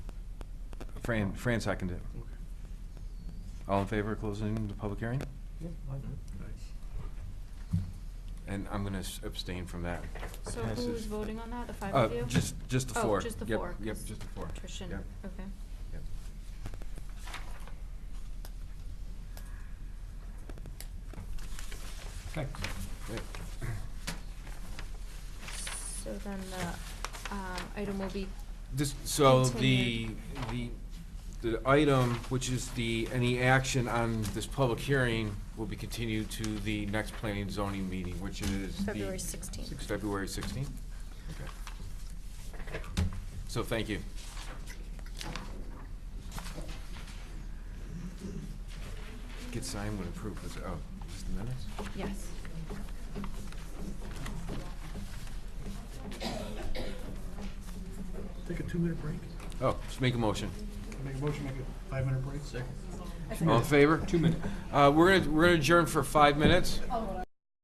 Fran, Fran seconded. it. All in favor of closing the public hearing? And I'm gonna s- abstain from that. So Passes. who is voting on that, the five Uh, of you? just, just the Oh, four. just the Yep, four, Yep, 'cause just the four. Trish and- Yep, okay. yep. Okay. Yep. So then the, um, item will be, This, so the, Continued. the, the item, which is the, any action on this public hearing will be continued to the next planning and zoning meeting, which is the. February 16th. February sixteenth? Okay. So thank you. Get signed when approved, was, oh, just the minutes? yes. Take a two-minute break. Oh, just make a motion. Make a motion, make a five-minute break. Second. All in favor? Two minutes. Uh, we're gonna, we're gonna adjourn for five minutes.